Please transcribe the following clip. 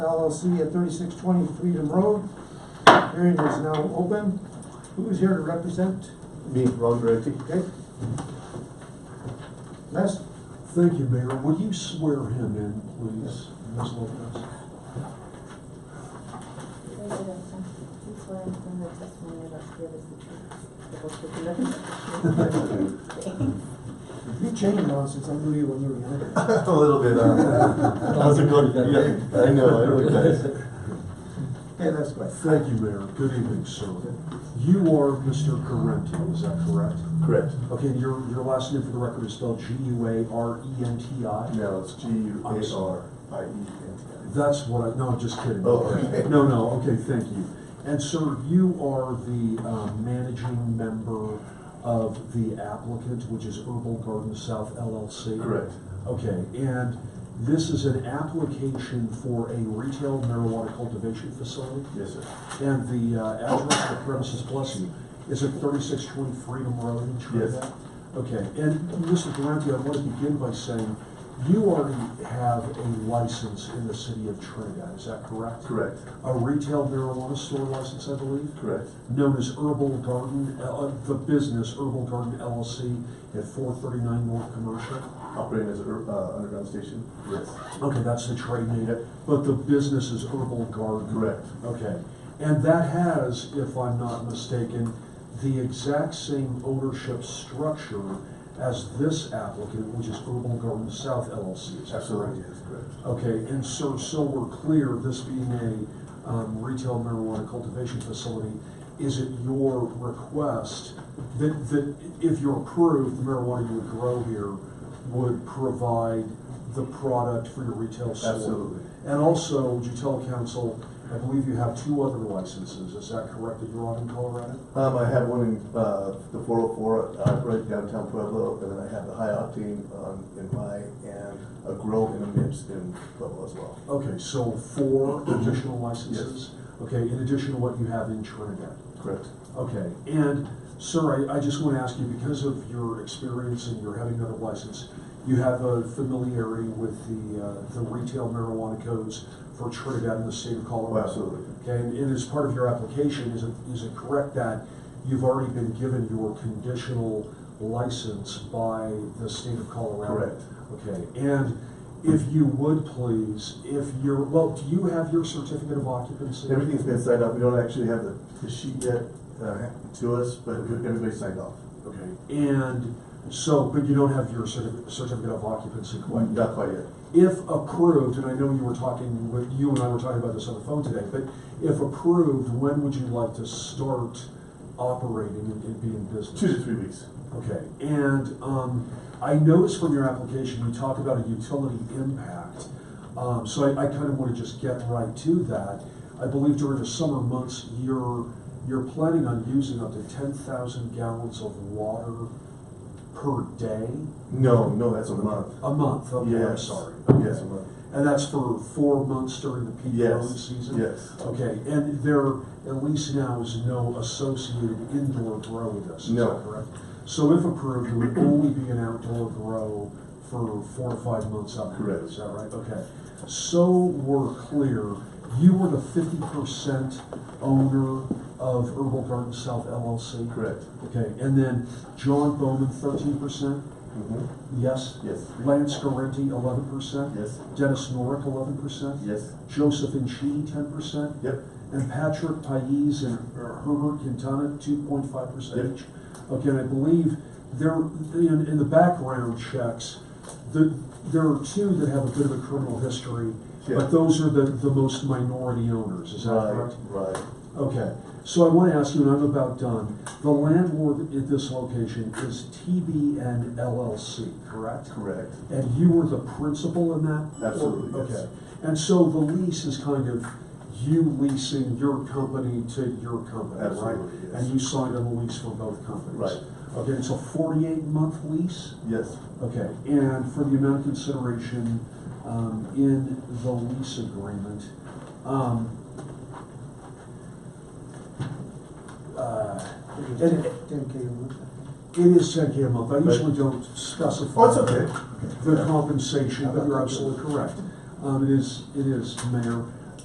LLC at thirty-six twenty Freedom Road. Hearing is now open. Who is here to represent? Me, Ron Brady. Okay. Les? Thank you, Mayor. Would you swear him in, please, Ms. Lopez? Raise your right hand. Do you swear and affirm that testimony you're about to give is the truth, the whole truth, and nothing but the truth? You changed now since I knew you when you were younger. A little bit, uh, that's a good, yeah, I know, I recognize. Okay, Les, go ahead. Thank you, Mayor. Good evening, sir. You are Mr. Correnti, is that correct? Correct. Okay, and your, your last name for the record is spelled E G-U-A-R-E-N-T-I? No, it's G U A R I E N T That's what I, no, I'm just kidding. Oh, okay. No, no, okay, thank you. And sir, you are the uh, managing member of the applicant, which is Herbal Garden South I. LLC? Correct. Okay, and this is an application for a retail marijuana cultivation facility? Yes, sir. And the uh, address of the premises, bless you, is it thirty-six twenty Freedom Road in Trinidad? Yes. Okay, and Mr. Durante, I want to begin by saying, you already have a license in the city of Trinidad, is that correct? Correct. A retail marijuana store license, I believe, Correct. known as Herbal Garden, uh, uh, the business Herbal Garden LLC at four thirty-nine North Commercial? Operating as a, uh, underground station? Yes. Okay, that's the trade name, Yep. but the business is Herbal Garden? Correct. Okay, and that has, if I'm not mistaken, the exact same ownership structure as this applicant, which is Herbal Garden South LLC, is that correct? Absolutely, yes, correct. Okay, and so, so we're clear, this being a um, retail marijuana cultivation facility, is it your request that, that if you're approved, the marijuana you would grow here would provide the product for your retail store? Absolutely. And also, would you tell council, I believe you have two other licenses, is that correct, that you're on in Colorado? Um, I have one in, uh, the four oh four, uh, right downtown Pueblo, and then I have the high octane, um, in my, and a grow and a mix in Pueblo as well. Okay, so four additional licenses? Okay, in addition to what you have in Trinidad? Correct. Okay, and sir, I, I just want to ask you, because of your experience and your having another license, you have a familiarity with the, uh, the retail marijuana codes for Trinidad and the state of Oh, Colorado? absolutely. Okay, and and as part of your application, is it, is it correct that you've already been given your conditional license by the state of Colorado? Correct. Okay, and if you would please, if you're, well, do you have your certificate of occupancy? Everything's been signed up. We don't actually have the, the sheet yet, uh, to us, but everybody's signed off. Okay, and so, but you don't have your certi- certificate of occupancy quite yet? Not quite yet. If approved, and I know you were talking, with you and I were talking about this on the phone today, but if approved, when would you like to start operating and and be in business? Two to three weeks. Okay, and um, I noticed from your application, you talk about a utility impact. Um, So I kind of want to just get right to that. I believe during the summer months, you're, you're planning on using up to 10,000 gallons of water per day? No, no, that's a month. A month, okay, I'm Yes. sorry. Yes, a month. And that's for four months during the peak Yes, growing season? yes. Okay, and there, at least now, is no associated indoor grow with this, is No. that correct? So if approved, it would only be an outdoor grow for four or five months out of the year, Correct. is that right? Okay. So we're clear, you were the fifty percent owner of Herbal Garden South LLC? Correct. Okay, and then John Bowman, thirteen percent? Mm-hmm. Mhm. Yes? Yes. Lance Garrenti, eleven percent? Yes. Dennis Norick, eleven percent? Yes. Joseph and Sheen, ten percent. Yep. And Patrick Pais and Herbert Quintana, two point five percent Yep. each. Okay, and I believe there, in, in the background checks, the, there are two that have a bit of a criminal history, Yeah. but those are the, the most minority owners, is that Right, correct? right. Okay, so I want to ask you, and I'm about done, the landlord at this location is TBN LLC, correct? Correct. And you were the principal in that? Absolutely, Okay. yes. And so the lease is kind of you leasing your company to your company, right? Absolutely, yes. And you signed a lease for both companies? Right. Okay, it's a forty-eight month lease? Yes. Okay, and for the amount of consideration um, in the lease agreement, um, uh, and it Ten K a month. it is ten K a month. I usually don't specify Oh, it's okay. the compensation, but you're absolutely correct. Um, it is, it is, Mayor.